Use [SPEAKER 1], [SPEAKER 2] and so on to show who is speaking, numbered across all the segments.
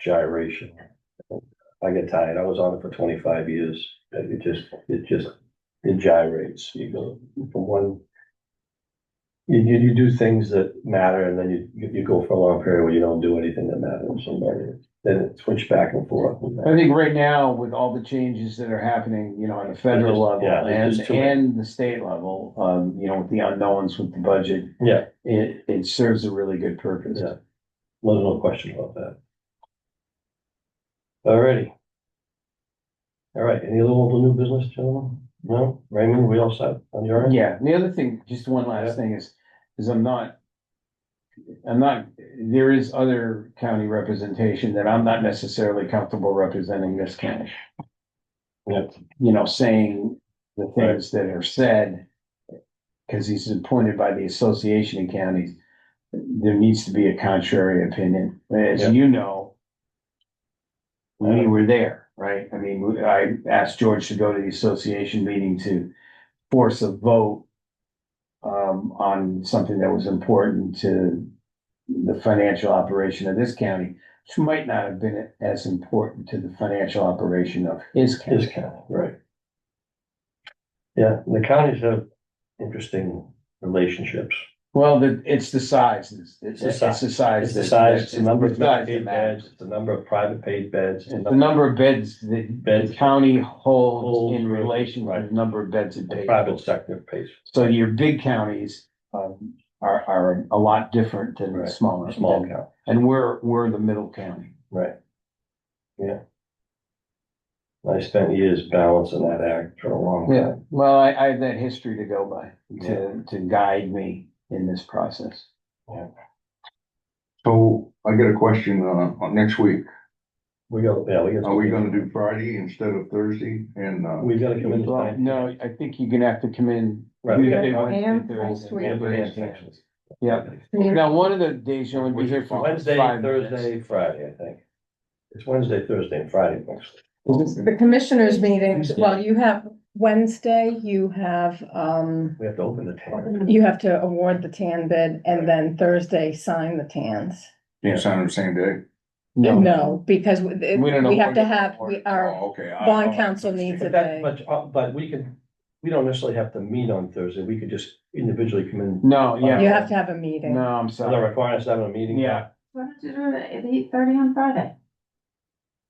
[SPEAKER 1] gyration. I get tired. I was on it for twenty-five years. It just, it just, it gyrates. You go from one. You, you, you do things that matter and then you- you, you go for a long period where you don't do anything that matters. And Then it switch back and forth.
[SPEAKER 2] I think right now with all the changes that are happening, you know, on the federal
[SPEAKER 1] Just-
[SPEAKER 2] level
[SPEAKER 1] yeah, there's
[SPEAKER 2] and,
[SPEAKER 1] just too many.
[SPEAKER 2] and the state level, um, you know, with the unknowns with the budget.
[SPEAKER 1] Yeah.
[SPEAKER 2] It, it serves a really good purpose.
[SPEAKER 1] Yeah. There's no question about that. Alrighty. All right, any other little new business, gentlemen? No, Raymond, we all set on your end?
[SPEAKER 2] Yeah, the other thing, just one
[SPEAKER 1] Yeah.
[SPEAKER 2] last thing is, is I'm not. I'm not, there is other county representation that I'm not necessarily comfortable representing this county.
[SPEAKER 1] Yep.
[SPEAKER 2] You know, saying the
[SPEAKER 1] Right.
[SPEAKER 2] things that are said. Cause he's appointed by the Association of Counties. There needs to be a contrary opinion, as
[SPEAKER 1] Yeah. Uh-huh.
[SPEAKER 2] you know.
[SPEAKER 1] Yeah.
[SPEAKER 2] We were there, right? I mean, we- I asked George to go to the association meeting to force a vote um, on something that was important to the financial operation of this county, which might not have been as important to the financial operation of his
[SPEAKER 1] His
[SPEAKER 2] county.
[SPEAKER 1] county, right. Yeah, the counties have interesting relationships.
[SPEAKER 2] Well, the, it's the size, it's, it's
[SPEAKER 1] the
[SPEAKER 2] it's
[SPEAKER 1] size.
[SPEAKER 2] the size.
[SPEAKER 1] It's the
[SPEAKER 2] that-
[SPEAKER 1] size, it's the number of
[SPEAKER 2] it's the size that
[SPEAKER 1] paid
[SPEAKER 2] matters.
[SPEAKER 1] beds, it's the number of private paid beds.
[SPEAKER 2] It's the number of beds that the
[SPEAKER 1] Beds.
[SPEAKER 2] county holds
[SPEAKER 1] Holds,
[SPEAKER 2] in
[SPEAKER 1] right.
[SPEAKER 2] relation to the number of beds it
[SPEAKER 1] The
[SPEAKER 2] pays.
[SPEAKER 1] private sector pays
[SPEAKER 2] So your big counties, um, are, are a lot different than the
[SPEAKER 1] Right.
[SPEAKER 2] smaller.
[SPEAKER 1] for small county,
[SPEAKER 2] And we're, we're the middle county.
[SPEAKER 1] right? Yeah. I spent years balancing that act for a long
[SPEAKER 2] Yeah,
[SPEAKER 1] time.
[SPEAKER 2] well, I, I have that history to go by,
[SPEAKER 1] Yeah.
[SPEAKER 2] to, to guide me in this process.
[SPEAKER 3] So I got a question, uh, on next week.
[SPEAKER 1] We go, yeah, we got.
[SPEAKER 3] Are we gonna do Friday instead of Thursday? And, uh,
[SPEAKER 1] We've got to come in.
[SPEAKER 2] Well,
[SPEAKER 1] tonight.
[SPEAKER 2] no, I think you're gonna have to come in.
[SPEAKER 1] Right.
[SPEAKER 2] Tuesday,
[SPEAKER 1] Yeah.
[SPEAKER 2] Wednesday,
[SPEAKER 4] And
[SPEAKER 2] Thursday.
[SPEAKER 4] Friday.
[SPEAKER 1] Yeah, but it's sections.
[SPEAKER 2] Yeah, now, one of the days you'll only be here for.
[SPEAKER 1] Wednesday,
[SPEAKER 2] five minutes.
[SPEAKER 1] Thursday, Friday, I think. It's Wednesday, Thursday and Friday next week.
[SPEAKER 4] The commissioners meetings, well, you have Wednesday, you have, um,
[SPEAKER 1] We have to open the tent.
[SPEAKER 4] you have to award the tan bid and then Thursday, sign the tans.
[SPEAKER 3] it's on the same day?
[SPEAKER 2] No,
[SPEAKER 4] No, because we
[SPEAKER 2] We don't know
[SPEAKER 4] we have to
[SPEAKER 2] what-
[SPEAKER 4] have, we are,
[SPEAKER 3] Oh, okay. I-
[SPEAKER 4] bond council needs
[SPEAKER 1] But
[SPEAKER 4] it.
[SPEAKER 1] that, but, uh, but we can, we don't necessarily have to meet on Thursday. We could just individually come in.
[SPEAKER 2] no,
[SPEAKER 4] you
[SPEAKER 2] yeah,
[SPEAKER 4] have to have a meeting.
[SPEAKER 2] no, I'm
[SPEAKER 1] Other
[SPEAKER 2] sorry.
[SPEAKER 1] requirements, having a meeting.
[SPEAKER 2] Yeah.
[SPEAKER 5] Why don't you do it at eight thirty on Friday?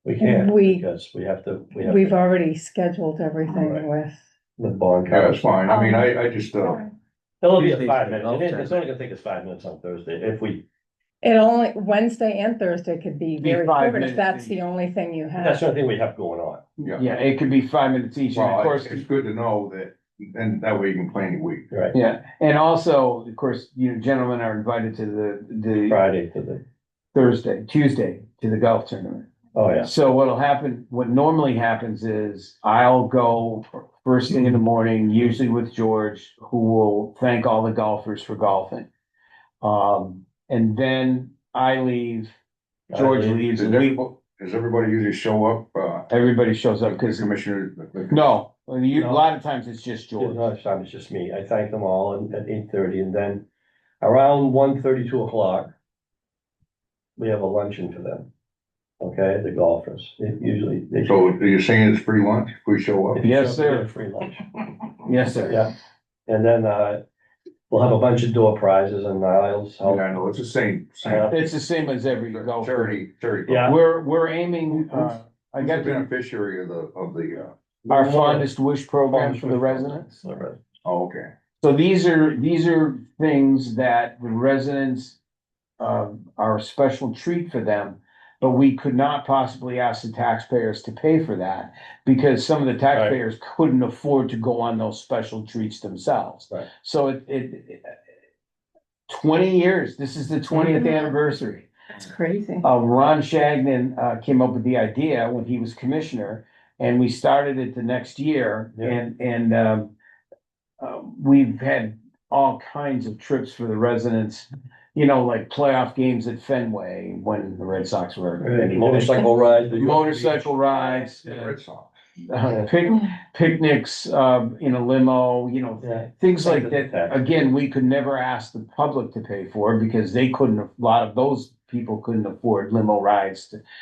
[SPEAKER 1] We can't,
[SPEAKER 4] We-
[SPEAKER 1] because we have to, we have
[SPEAKER 4] We've
[SPEAKER 1] to-
[SPEAKER 4] already scheduled
[SPEAKER 1] Right.
[SPEAKER 4] everything with,
[SPEAKER 1] the bond
[SPEAKER 3] Yeah, it's
[SPEAKER 1] council.
[SPEAKER 3] fine. I mean, I, I just, uh,
[SPEAKER 1] It'll be a
[SPEAKER 2] Tuesday's
[SPEAKER 1] five
[SPEAKER 2] the
[SPEAKER 1] minutes.
[SPEAKER 2] golf
[SPEAKER 1] It is- It's only gonna take us five minutes on Thursday if we,
[SPEAKER 4] it only, Wednesday and Thursday could be
[SPEAKER 2] Be
[SPEAKER 4] very
[SPEAKER 2] five
[SPEAKER 4] short
[SPEAKER 2] minutes
[SPEAKER 4] if that's
[SPEAKER 2] each.
[SPEAKER 4] the only thing you
[SPEAKER 1] that's
[SPEAKER 4] have.
[SPEAKER 1] the only thing we have going on.
[SPEAKER 3] yeah.
[SPEAKER 2] Yeah, it could be five minutes each, and of
[SPEAKER 3] Well,
[SPEAKER 2] course,
[SPEAKER 3] it's, it's good to know that, and that way you can plan your week.
[SPEAKER 1] Right,
[SPEAKER 2] yeah, and also, of course, you know, gentlemen are invited to the, the
[SPEAKER 1] Friday to the,
[SPEAKER 2] Thursday, Tuesday, to the golf tournament.
[SPEAKER 1] oh, yeah.
[SPEAKER 2] So what'll happen, what normally happens is I'll go first thing in the morning, usually with George, who will thank all the golfers for golfing. Um, and then I leave, George leaves,
[SPEAKER 3] Does
[SPEAKER 2] and we,
[SPEAKER 3] everybody, does everybody usually show up, uh,
[SPEAKER 2] everybody shows up
[SPEAKER 3] the
[SPEAKER 2] because,
[SPEAKER 3] commissioner? the-
[SPEAKER 2] no, you, a
[SPEAKER 1] No.
[SPEAKER 2] lot of times it's just
[SPEAKER 1] Yeah,
[SPEAKER 2] George.
[SPEAKER 1] No, it's time, it's just me. I thank them all and- at eight thirty and then around one thirty, two o'clock. We have a luncheon for them. Okay, the golfers, It usually. they-
[SPEAKER 3] So you're saying it's free lunch if we show up?
[SPEAKER 1] if you
[SPEAKER 2] Yes,
[SPEAKER 1] show up, you
[SPEAKER 2] sir.
[SPEAKER 1] get a Free lunch,
[SPEAKER 2] Yes, sir.
[SPEAKER 1] yeah. And then, uh, we'll have a bunch of door prizes and Niles.
[SPEAKER 3] Yeah, I know, it's the same, same.
[SPEAKER 2] It's the same as every golfer.
[SPEAKER 3] Charity, charity.
[SPEAKER 1] Yeah.
[SPEAKER 2] We're, we're aiming, uh, I
[SPEAKER 3] Who's
[SPEAKER 2] got
[SPEAKER 3] the
[SPEAKER 2] the-
[SPEAKER 3] beneficiary of the, of the, uh,
[SPEAKER 2] our fondest wish program for the residents.
[SPEAKER 3] oh, okay.
[SPEAKER 2] So these are, these are things that the residents um, are a special treat for them. But we could not possibly ask the taxpayers to pay for that because some of the taxpayers couldn't afford to go on those special treats themselves.
[SPEAKER 1] Right.
[SPEAKER 2] So it, it, it- twenty years, this is the twentieth anniversary.
[SPEAKER 4] It's crazy.
[SPEAKER 2] Uh, Ron Shagnon, uh, came up with the idea when he was commissioner, and we started it the next year,
[SPEAKER 1] Yeah.
[SPEAKER 2] and, and, um. Uh, we've had all kinds of trips for the residents, you know, like playoff games at Fenway when the Red Sox were.
[SPEAKER 1] Motorcycle ride. the-
[SPEAKER 2] Motorcycle rides,
[SPEAKER 3] The Red Sox.
[SPEAKER 2] uh, pic- picnics, um, in a limo, you know,
[SPEAKER 1] Yeah,
[SPEAKER 2] things like
[SPEAKER 1] Things like
[SPEAKER 2] that.
[SPEAKER 1] that.
[SPEAKER 2] Again, we could never ask the public to pay for it because they couldn't, a lot of those people couldn't afford limo rides to